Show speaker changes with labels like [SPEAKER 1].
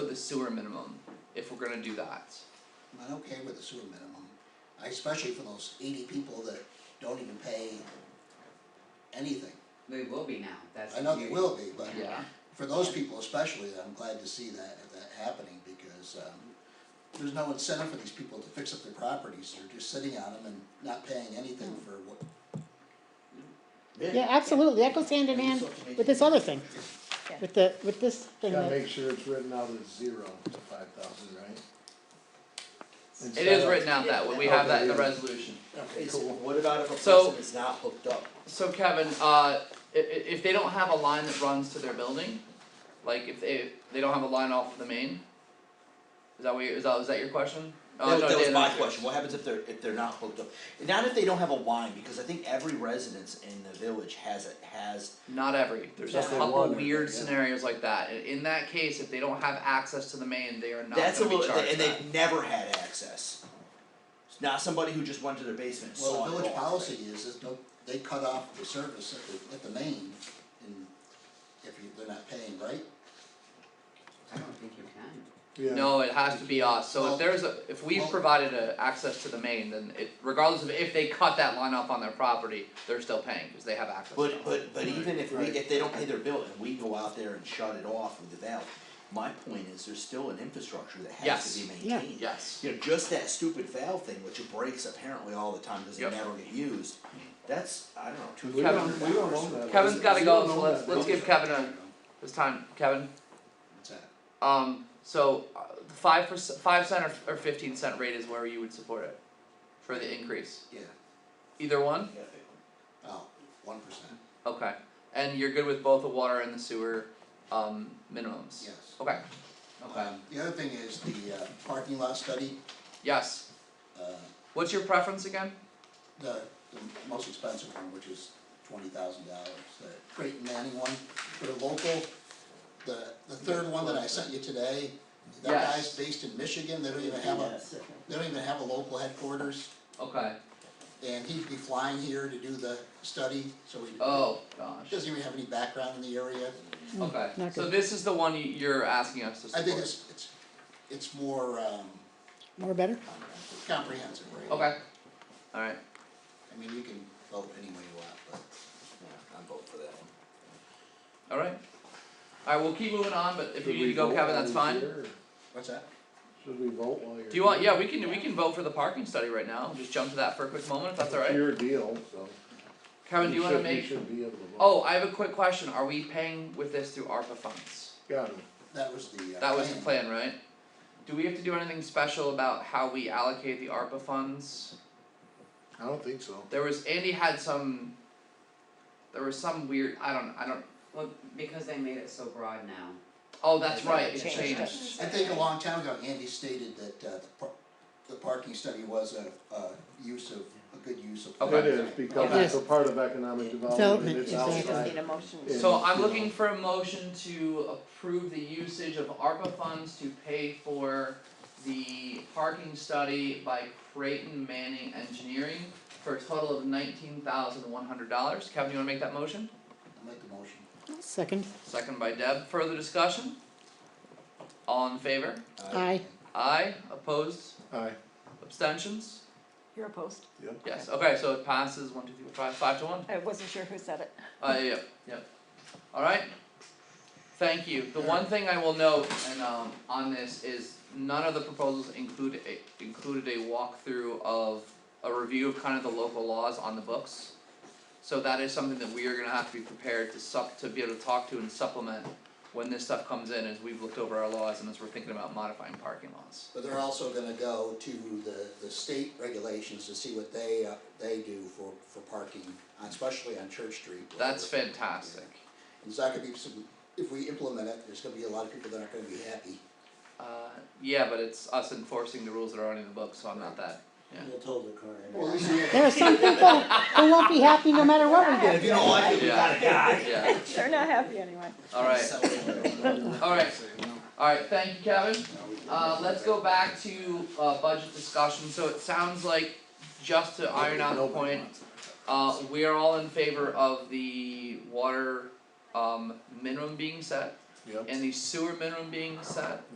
[SPEAKER 1] the sewer minimum, if we're gonna do that.
[SPEAKER 2] I'm okay with the sewer minimum, I especially for those eighty people that don't even pay anything.
[SPEAKER 3] They will be now, that's.
[SPEAKER 2] I know
[SPEAKER 3] the
[SPEAKER 2] they
[SPEAKER 3] beauty.
[SPEAKER 2] will be, but
[SPEAKER 1] Yeah,
[SPEAKER 2] for those people especially, I'm glad to see that, that happening, because, um, there's no incentive for these people to fix up their properties, they're just sitting on them and not paying anything for what,
[SPEAKER 4] Yeah, absolutely, that goes hand in hand with this other thing, with the, with this thing
[SPEAKER 5] Gotta
[SPEAKER 4] that,
[SPEAKER 5] make sure it's written out as zero to five thousand, right?
[SPEAKER 1] it
[SPEAKER 5] Instead
[SPEAKER 1] is
[SPEAKER 5] of-
[SPEAKER 1] written out that way, we have that in the
[SPEAKER 5] Okay, yeah.
[SPEAKER 1] resolution.
[SPEAKER 5] Okay,
[SPEAKER 6] Is,
[SPEAKER 5] cool.
[SPEAKER 6] what about if a
[SPEAKER 1] So-
[SPEAKER 6] person is not hooked up?
[SPEAKER 1] So Kevin, uh, i- i- if they don't have a line that runs to their building, like if they, they don't have a line off of the main? Is that what, you- is that, is that your question? Uh,
[SPEAKER 6] That was-
[SPEAKER 1] no,
[SPEAKER 6] that was
[SPEAKER 1] Dan,
[SPEAKER 6] my
[SPEAKER 1] that's yours.
[SPEAKER 6] question, what happens if they're, if they're not hooked up? Not if they don't have a line, because I think every residence in the village has it, has,
[SPEAKER 1] Not every, there's a
[SPEAKER 5] Just the
[SPEAKER 1] couple
[SPEAKER 5] one or
[SPEAKER 1] weird
[SPEAKER 5] the- yeah.
[SPEAKER 1] scenarios like that, in, in that case, if they don't have access to the main, they are not
[SPEAKER 6] that's a
[SPEAKER 1] gonna be
[SPEAKER 6] little,
[SPEAKER 1] charged
[SPEAKER 6] and
[SPEAKER 1] that.
[SPEAKER 6] they've never had access. It's Not somebody who just went to their basement and
[SPEAKER 2] well,
[SPEAKER 6] saw it
[SPEAKER 2] the
[SPEAKER 6] all.
[SPEAKER 2] village policy is, is no, they cut off the service at the, at the main, and if you, they're not paying, right?
[SPEAKER 3] I don't think you can.
[SPEAKER 5] Yeah.
[SPEAKER 1] No, it has to be us, so
[SPEAKER 2] Well-
[SPEAKER 1] if there's a, if we've
[SPEAKER 2] well-
[SPEAKER 1] provided a access to the main, then it, regardless of if they cut that line off on their property, they're still paying, cause they have access. to
[SPEAKER 6] But
[SPEAKER 1] it.
[SPEAKER 6] but but even if we,
[SPEAKER 5] Right.
[SPEAKER 6] if they don't pay their bill and we go out there and shut it off with the valve, my point is there's still an infrastructure that has to be
[SPEAKER 1] Yes.
[SPEAKER 6] maintained.
[SPEAKER 4] Yeah.
[SPEAKER 1] Yes,
[SPEAKER 6] You know, just that stupid valve thing, which breaks apparently all the time, doesn't
[SPEAKER 1] Yep.
[SPEAKER 6] never get used, that's, I don't know, two,
[SPEAKER 5] We
[SPEAKER 6] three
[SPEAKER 1] Kevin-
[SPEAKER 5] don't,
[SPEAKER 6] hundred
[SPEAKER 5] we don't
[SPEAKER 6] dollars.
[SPEAKER 5] own that.
[SPEAKER 1] Kevin's
[SPEAKER 5] We
[SPEAKER 1] gotta go,
[SPEAKER 5] don't
[SPEAKER 1] so
[SPEAKER 5] own
[SPEAKER 1] let's
[SPEAKER 5] that
[SPEAKER 1] let's
[SPEAKER 5] building.
[SPEAKER 1] give Kevin a, it's time, Kevin,
[SPEAKER 2] What's that?
[SPEAKER 1] um, so, uh, the five percent, five cent or or fifteen cent rate is where you would support it. For the increase,
[SPEAKER 2] Yeah,
[SPEAKER 1] either one?
[SPEAKER 2] oh, one percent,
[SPEAKER 1] Okay, and you're good with both the water and the sewer um minimums?
[SPEAKER 2] yes.
[SPEAKER 1] Okay, okay,
[SPEAKER 2] Um, the other thing is the uh, parking lot study,
[SPEAKER 1] yes,
[SPEAKER 2] uh,
[SPEAKER 1] what's your preference again?
[SPEAKER 2] the, the most expensive one, which is twenty thousand dollars, the Creighton Manning one, for the local. The, the third one that I sent you today, that
[SPEAKER 1] Yes.
[SPEAKER 2] guy's based in Michigan, they don't even have a, they don't even have a local headquarters.
[SPEAKER 1] Okay,
[SPEAKER 2] And he'd be flying here to do the study, so he
[SPEAKER 1] oh gosh,
[SPEAKER 2] doesn't even have any background in the area.
[SPEAKER 1] okay,
[SPEAKER 4] not
[SPEAKER 1] so
[SPEAKER 4] good.
[SPEAKER 1] this is the one you you're asking us to
[SPEAKER 2] I
[SPEAKER 1] support?
[SPEAKER 2] think it's, it's, it's more, um,
[SPEAKER 4] more better,
[SPEAKER 2] comprehensive, right?
[SPEAKER 1] Okay, alright,
[SPEAKER 2] I mean, you can vote any way you want, but.
[SPEAKER 6] Yeah, I'm voting for that one.
[SPEAKER 1] alright. Alright, we'll keep moving on, but if you
[SPEAKER 5] Should
[SPEAKER 1] need to
[SPEAKER 5] we
[SPEAKER 1] go,
[SPEAKER 5] vote
[SPEAKER 1] Kevin,
[SPEAKER 5] while
[SPEAKER 1] that's
[SPEAKER 5] you're
[SPEAKER 1] fine.
[SPEAKER 5] here, or
[SPEAKER 2] What's that?
[SPEAKER 5] Should we vote while you're?
[SPEAKER 1] Do you want, yeah, we can, we can vote for the parking study right now, just jump to that for a quick moment, if that's
[SPEAKER 5] It's
[SPEAKER 1] alright.
[SPEAKER 5] your deal, so.
[SPEAKER 1] Kevin, do you wanna
[SPEAKER 5] should-
[SPEAKER 1] make,
[SPEAKER 5] should be able to vote.
[SPEAKER 1] oh, I have a quick question, are we paying with this through ARPA funds?
[SPEAKER 5] Got it.
[SPEAKER 2] That was the uh,
[SPEAKER 1] That was the plan, right? Do we have to do anything special about how we allocate the ARPA funds?
[SPEAKER 5] I don't think so.
[SPEAKER 1] There was, Andy had some. There was some weird, I don't, I don't,
[SPEAKER 3] Well, because they made it so broad now,
[SPEAKER 1] oh, that's
[SPEAKER 3] Yeah,
[SPEAKER 1] right,
[SPEAKER 3] it
[SPEAKER 1] it
[SPEAKER 3] changed.
[SPEAKER 1] changed,
[SPEAKER 2] I think a long time ago, Andy stated that uh the par- the parking study was a a use of, a good use of.
[SPEAKER 1] Okay.
[SPEAKER 5] It is, because
[SPEAKER 4] Okay.
[SPEAKER 5] it's a part of economic development,
[SPEAKER 4] Development,
[SPEAKER 5] it's
[SPEAKER 4] exactly.
[SPEAKER 7] Just
[SPEAKER 5] outside.
[SPEAKER 7] need a motion.
[SPEAKER 5] Yeah.
[SPEAKER 1] So I'm
[SPEAKER 5] Yeah.
[SPEAKER 1] looking for a motion to approve the usage of ARPA funds to pay for the parking study by Creighton Manning Engineering for a total of nineteen thousand one hundred dollars. Kevin, you wanna make that motion?
[SPEAKER 2] I'll Make the motion.
[SPEAKER 4] second,
[SPEAKER 1] Second by Deb, further discussion? All in favor?
[SPEAKER 4] aye,
[SPEAKER 1] Aye, opposed,
[SPEAKER 5] Aye,
[SPEAKER 1] abstentions?
[SPEAKER 7] You're opposed?
[SPEAKER 5] yep.
[SPEAKER 1] Yes, okay, so it passes one, two, three, four, five, five to one,
[SPEAKER 7] I wasn't sure who said it.
[SPEAKER 1] uh, yeah, yeah, alright? Thank you, the one thing I will note and um on this is none of the proposals include a included a walkthrough of a review of kind of the local laws on the books. So that is something that we are gonna have to be prepared to sup, to be able to talk to and supplement when this stuff comes in, as we've looked over our laws and as we're thinking about modifying parking laws.
[SPEAKER 2] But they're also gonna go to the the state regulations to see what they uh they do for for parking, on- especially on Church Street. where
[SPEAKER 1] That's
[SPEAKER 2] we're-
[SPEAKER 1] fantastic.
[SPEAKER 2] There's not gonna be some, if we implement it, there's gonna be a lot of people that aren't gonna be happy.
[SPEAKER 1] Uh, yeah, but it's us enforcing the rules that are already in the book, so I'm not that. Yeah.
[SPEAKER 6] We'll tow the car in.
[SPEAKER 2] Well, at least we have-
[SPEAKER 4] there are some people who won't be happy no matter what we do.
[SPEAKER 6] If you don't like it, we
[SPEAKER 1] Yeah.
[SPEAKER 6] got a guy.
[SPEAKER 1] Yeah.
[SPEAKER 7] They're not happy anyway.
[SPEAKER 1] Alright. Alright. Alright, thank you, Kevin. Uh, let's go back to uh, budget discussion. So it sounds like, just to iron out the point, uh, we are all in favor of the water um, minimum being set
[SPEAKER 5] Yep.
[SPEAKER 1] and the sewer minimum being set.